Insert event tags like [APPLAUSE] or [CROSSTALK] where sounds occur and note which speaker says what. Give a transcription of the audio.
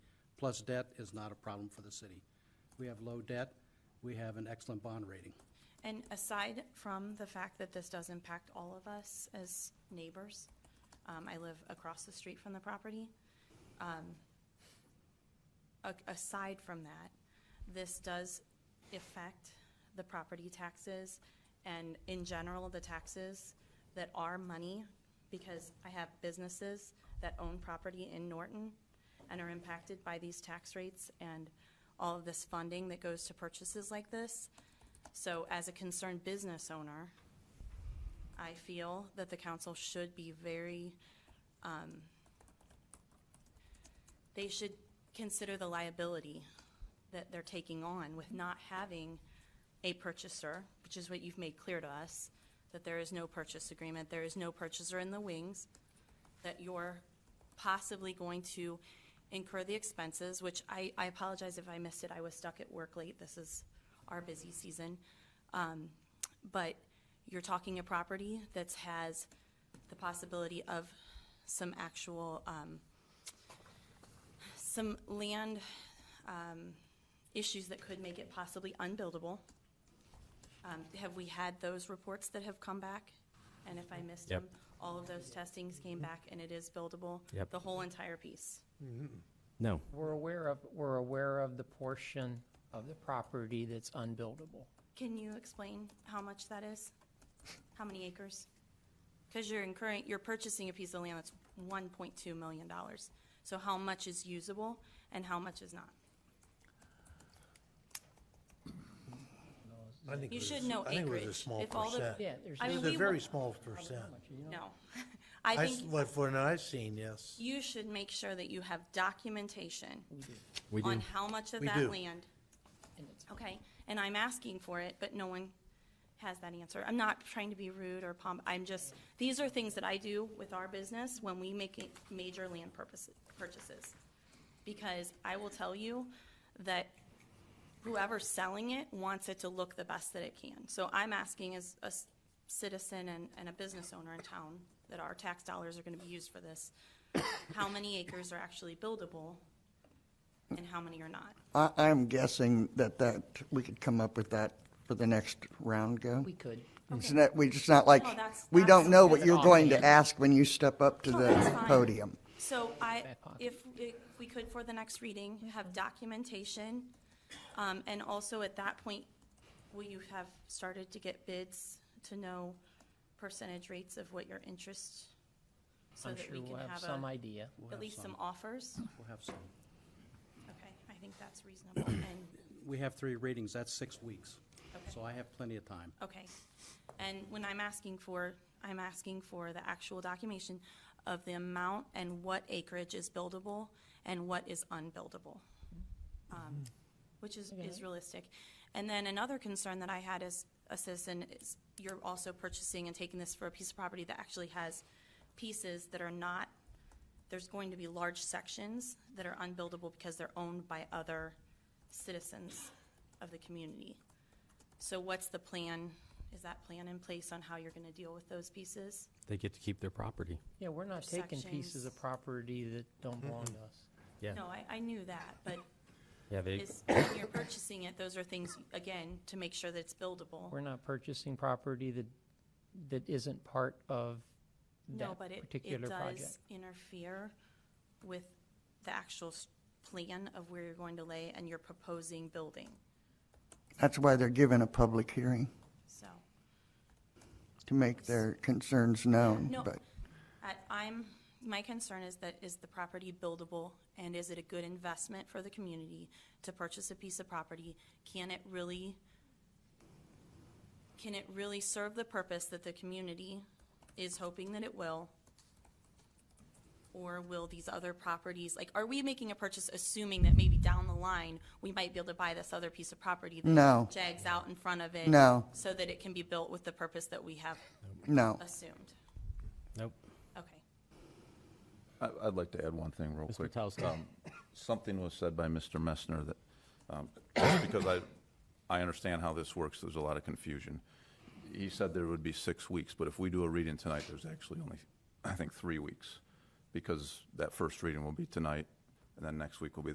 Speaker 1: plus debt is not a problem for the city. We have low debt, we have an excellent bond rating.
Speaker 2: And aside from the fact that this does impact all of us as neighbors, um, I live across the street from the property. um, a- Aside from that, this does affect the property taxes and in general, the taxes that are money because I have businesses that own property in Norton and are impacted by these tax rates and all of this funding that goes to purchases like this. So as a concerned business owner, I feel that the council should be very, um, they should consider the liability that they're taking on with not having a purchaser, which is what you've made clear to us, that there is no purchase agreement, there is no purchaser in the wings, that you're possibly going to incur the expenses, which I, I apologize if I missed it. I was stuck at work late. This is our busy season. Um, But you're talking a property that has the possibility of some actual, um, some land um, issues that could make it possibly unbuildable. Um, Have we had those reports that have come back? And if I missed
Speaker 3: Yep.
Speaker 2: them, all of those testings came back and it is buildable?
Speaker 3: Yep.
Speaker 2: The whole entire piece?
Speaker 3: No.
Speaker 4: We're aware of, we're aware of the portion of the property that's unbuildable.
Speaker 2: Can you explain how much that is? How many acres? Because you're incurring, you're purchasing a piece of land that's one point two million dollars. So how much is usable and how much is not?
Speaker 5: I think
Speaker 2: You
Speaker 5: it was-
Speaker 2: should know
Speaker 5: I think it was a
Speaker 2: acreage.
Speaker 5: small
Speaker 2: If all the-
Speaker 5: percent.
Speaker 4: Yeah, there's.
Speaker 2: I
Speaker 4: no-
Speaker 2: mean,
Speaker 5: It was
Speaker 2: we
Speaker 5: a very
Speaker 2: want-
Speaker 5: small percent.
Speaker 2: No. [LAUGHS] I
Speaker 5: That's
Speaker 2: think
Speaker 5: what, what I've seen, yes.
Speaker 2: you should make sure that you have documentation
Speaker 3: We
Speaker 2: on
Speaker 3: do.
Speaker 2: how much of
Speaker 5: We
Speaker 2: that
Speaker 5: do.
Speaker 2: land.
Speaker 4: and it's-
Speaker 2: Okay, and I'm asking for it, but no one has that answer. I'm not trying to be rude or pomp, I'm just, these are things that I do with our business when we make it- major land purposes, purchases. Because I will tell you that whoever's selling it wants it to look the best that it can. So I'm asking as a s- citizen and, and a business owner in town, that our tax dollars are gonna be used for this, [COUGHS] how many acres are actually buildable and how many are not?
Speaker 6: I, I'm guessing that that, we could come up with that for the next round go.
Speaker 4: We could.
Speaker 6: It's not, we, it's not like,
Speaker 2: No, that's-
Speaker 6: we
Speaker 2: that's-
Speaker 6: don't know what
Speaker 4: That's
Speaker 6: you're
Speaker 4: all
Speaker 6: going
Speaker 4: in.
Speaker 6: to ask when you step up to
Speaker 2: Oh, that's
Speaker 6: the
Speaker 2: fine.
Speaker 6: podium.
Speaker 2: So I,
Speaker 4: Back pocket.
Speaker 2: if, if we could for the next reading, have documentation, um, and also at that point, will you have started to get bids to know percentage rates of what your interest? so
Speaker 4: I'm
Speaker 2: that
Speaker 4: sure
Speaker 2: we
Speaker 4: we'll
Speaker 2: can
Speaker 4: have
Speaker 2: a-
Speaker 4: some idea.
Speaker 1: We'll
Speaker 2: At
Speaker 1: have
Speaker 2: least some offers?
Speaker 1: We'll have some.
Speaker 2: Okay, I think that's reasonable, and,
Speaker 1: We have three readings, that's six weeks.
Speaker 2: Okay.
Speaker 1: So I have plenty of time.
Speaker 2: okay. And when I'm asking for, I'm asking for the actual documentation of the amount and what acreage is buildable and what is unbuildable. um, which is, is realistic. And then another concern that I had as a citizen is you're also purchasing and taking this for a piece of property that actually has pieces that are not, there's going to be large sections that are unbuildable because they're owned by other citizens of the community. So what's the plan? Is that plan in place on how you're gonna deal with those pieces?
Speaker 3: They get to keep their property.
Speaker 4: Yeah, we're not taking pieces of
Speaker 2: Sections.
Speaker 4: property that don't belong to us.
Speaker 3: Yeah.
Speaker 2: No, I, I knew that, but
Speaker 3: Yeah, they,
Speaker 2: is, when you're purchasing it, those are things, again, to make sure that it's buildable.
Speaker 4: We're not purchasing property that, that isn't part of
Speaker 2: No,
Speaker 4: that
Speaker 2: but it, it
Speaker 4: particular
Speaker 2: does
Speaker 4: project.
Speaker 2: interfere with the actual s- plan of where you're going to lay and your proposing building,
Speaker 6: That's why they're given a public hearing,
Speaker 2: so.
Speaker 6: to make their concerns known,
Speaker 2: No,
Speaker 6: but
Speaker 2: I, I'm, my concern is that, is the property buildable? And is it a good investment for the community to purchase a piece of property? Can it really, can it really serve the purpose that the community is hoping that it will? Or will these other properties, like, are we making a purchase assuming that maybe down the line, we might be able to buy this other piece of property? that
Speaker 6: No.
Speaker 2: Jags out in front of it?
Speaker 6: No.
Speaker 2: So that it can be built with the purpose that we have
Speaker 6: no.
Speaker 2: assumed?
Speaker 3: nope.
Speaker 2: Okay.
Speaker 7: I- I'd like to add one thing real
Speaker 3: Mr.
Speaker 7: quick.
Speaker 3: Patowsky.
Speaker 7: Um, Something was said by Mr. Messner that, um, just because I, I understand how this works, there's a lot of confusion. He said there would be six weeks, but if we do a reading tonight, there's actually only, I think, three weeks, because that first reading will be tonight, and then next week will be